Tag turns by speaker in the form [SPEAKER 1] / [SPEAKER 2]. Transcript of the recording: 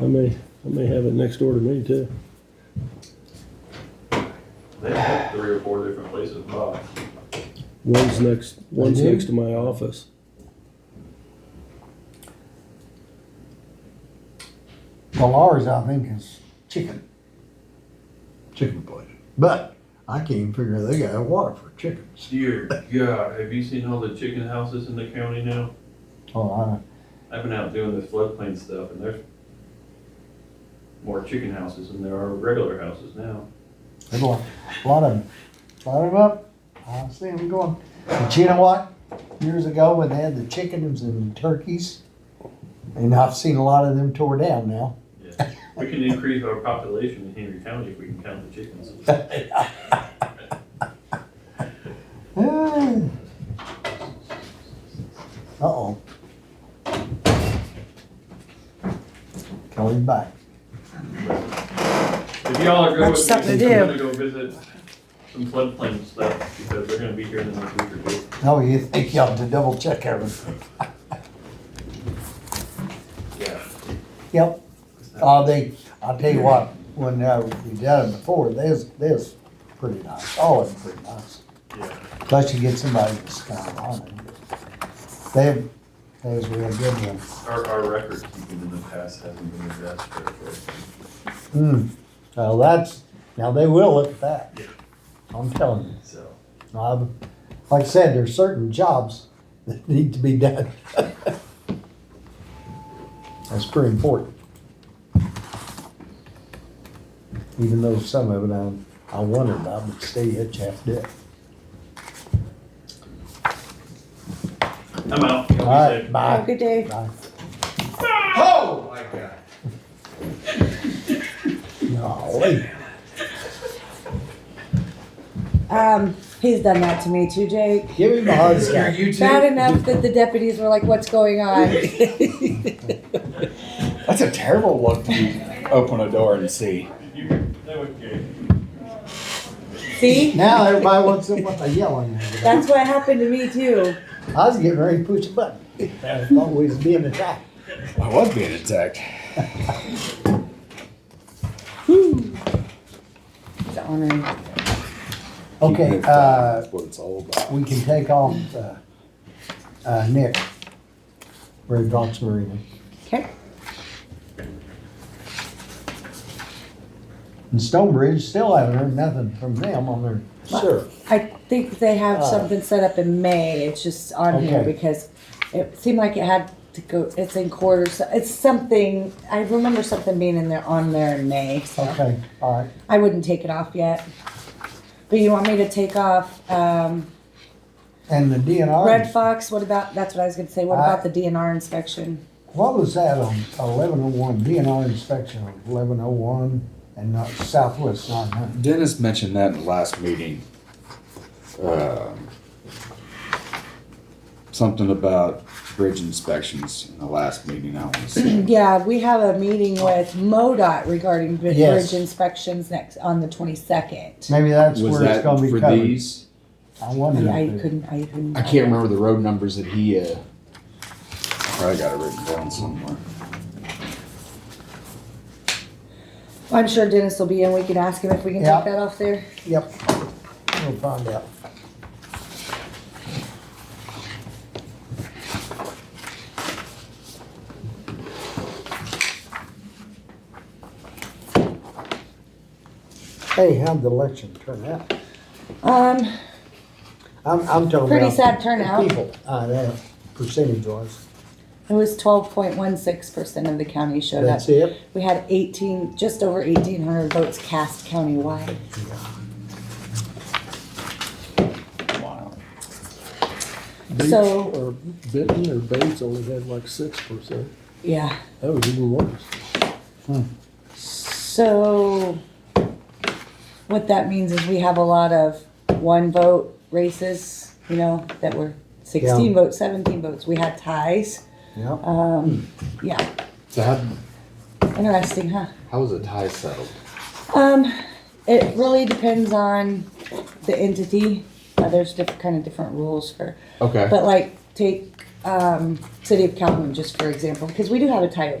[SPEAKER 1] I may, I may have it next door to me too.
[SPEAKER 2] They have three or four different places, Bob.
[SPEAKER 1] One's next, one's
[SPEAKER 3] do?
[SPEAKER 1] next to my office.
[SPEAKER 3] Well, ours, I think, is chicken.
[SPEAKER 4] chicken place. But I can't even figure they got water for chickens.
[SPEAKER 2] Dear God, have you seen all the chicken houses in the county now?
[SPEAKER 3] Oh, I,
[SPEAKER 2] I've been out doing this floodplain stuff and there's more chicken houses than there are regular houses now.
[SPEAKER 3] there's a lot, a lot of them. A lot of them up. I see them going. But you know what? Years ago, when they had the chickens and turkeys, and I've seen a lot of them tore down now.
[SPEAKER 2] Yeah. We can increase our population in Henry County if we can count the chickens.
[SPEAKER 3] Ah. Uh-oh. Kelly's back.
[SPEAKER 2] If y'all are good
[SPEAKER 5] That's
[SPEAKER 2] with
[SPEAKER 5] something to
[SPEAKER 2] me, I'm gonna
[SPEAKER 5] do.
[SPEAKER 2] go visit some floodplain stuff because they're gonna be here in the next week or two.
[SPEAKER 3] Oh, you think you ought to double check everything?
[SPEAKER 2] Yeah.
[SPEAKER 3] Yep. Uh, they, I'll tell you what, when uh, we done it before, this, this pretty nice, all of them pretty nice.
[SPEAKER 2] Yeah.
[SPEAKER 3] Plus you get somebody that's kind of on it. They, that was a real good one.
[SPEAKER 2] Our, our record keeping in the past hasn't been the best for for-
[SPEAKER 3] Hmm, now that's, now they will look at that.
[SPEAKER 2] Yeah.
[SPEAKER 3] I'm telling you.
[SPEAKER 2] so.
[SPEAKER 3] I've, like I said, there's certain jobs that need to be done. That's pretty important. Even though some of it I, I wonder about, but stay hitch half dead.
[SPEAKER 2] I'm out. Y'all be
[SPEAKER 3] All right,
[SPEAKER 2] safe.
[SPEAKER 5] Have a
[SPEAKER 3] bye.
[SPEAKER 5] good day.
[SPEAKER 3] Bye.
[SPEAKER 6] Oh my God.
[SPEAKER 3] Golly.
[SPEAKER 5] Um, he's done that to me too, Jake.
[SPEAKER 3] Give him a hard
[SPEAKER 6] Are
[SPEAKER 3] time.
[SPEAKER 6] you too?
[SPEAKER 5] Bad enough that the deputies were like, what's going on?
[SPEAKER 6] That's a terrible look to open a door and see.
[SPEAKER 2] You- that was good.
[SPEAKER 5] See?
[SPEAKER 3] Now everybody wants to, want to yell on you.
[SPEAKER 5] That's what happened to me too.
[SPEAKER 3] I was getting ready to push a button. I thought we was being attacked.
[SPEAKER 6] I was being attacked.
[SPEAKER 5] It's on him.
[SPEAKER 3] Okay, uh,
[SPEAKER 6] That's what it's all about.
[SPEAKER 3] we can take off, uh, uh, Nick. Ray Bronx Marina.
[SPEAKER 5] Okay.
[SPEAKER 3] And Stonebridge still haven't heard nothing from them on their.
[SPEAKER 6] Sure.
[SPEAKER 5] I think they have
[SPEAKER 3] Uh,
[SPEAKER 5] something set up in May. It's just on here
[SPEAKER 3] Okay.
[SPEAKER 5] because it seemed like it had to go. It's in quarters. It's something. I remember something being in there on there in May. So
[SPEAKER 3] Okay, all right.
[SPEAKER 5] I wouldn't take it off yet. But you want me to take off um,
[SPEAKER 3] And the DNR.
[SPEAKER 5] Red Fox? What about? That's what I was going to say. What
[SPEAKER 3] I-
[SPEAKER 5] about the DNR inspection?
[SPEAKER 3] What was that on eleven oh one, DNR inspection on eleven oh one and not Southwest nine hundred?
[SPEAKER 6] Dennis mentioned that in the last meeting. Um, Something about bridge inspections in the last meeting, I wanna say.
[SPEAKER 5] Yeah, we have a meeting with MoDOT regarding bri-
[SPEAKER 3] Yes.
[SPEAKER 5] bridge inspections next on the twenty second.
[SPEAKER 3] Maybe that's
[SPEAKER 7] Was
[SPEAKER 3] where it's
[SPEAKER 7] that
[SPEAKER 3] gonna be
[SPEAKER 7] for
[SPEAKER 3] covered.
[SPEAKER 7] these?
[SPEAKER 3] I wonder.
[SPEAKER 5] I
[SPEAKER 3] if it-
[SPEAKER 5] couldn't. I couldn't.
[SPEAKER 7] I can't remember the road numbers that he. Uh,
[SPEAKER 6] Probably got it written down somewhere.
[SPEAKER 5] I'm sure Dennis will be in. We can ask him if we can
[SPEAKER 3] Yeah.
[SPEAKER 5] take that off there.
[SPEAKER 3] Yep. We'll find out. Hey, how'd the election turn out?
[SPEAKER 5] Um,
[SPEAKER 3] I'm, I'm talking about.
[SPEAKER 5] Pretty sad
[SPEAKER 3] the
[SPEAKER 5] turnout.
[SPEAKER 3] People, uh, that percentage wise.
[SPEAKER 5] it was twelve point one six percent of the county showed up.
[SPEAKER 3] That's it?
[SPEAKER 5] We had eighteen, just over eighteen hundred votes cast countywide.
[SPEAKER 6] Wow.
[SPEAKER 1] Bates-
[SPEAKER 5] So-
[SPEAKER 1] Or Benton or Bates only had like six percent.
[SPEAKER 5] Yeah.
[SPEAKER 1] That was even worse.
[SPEAKER 5] So what that means is we have a lot of one vote races, you know, that were sixteen
[SPEAKER 3] Yeah.
[SPEAKER 5] votes, seventeen votes. We had ties.
[SPEAKER 3] Yep.
[SPEAKER 5] Um, yeah,
[SPEAKER 7] so how
[SPEAKER 5] interesting, huh?
[SPEAKER 7] how was the tie settled?
[SPEAKER 5] Um, it really depends on the entity. Uh, there's different kind of different rules for,
[SPEAKER 7] Okay.
[SPEAKER 5] but like take um, city of Calhoun just for example, because we do have a tie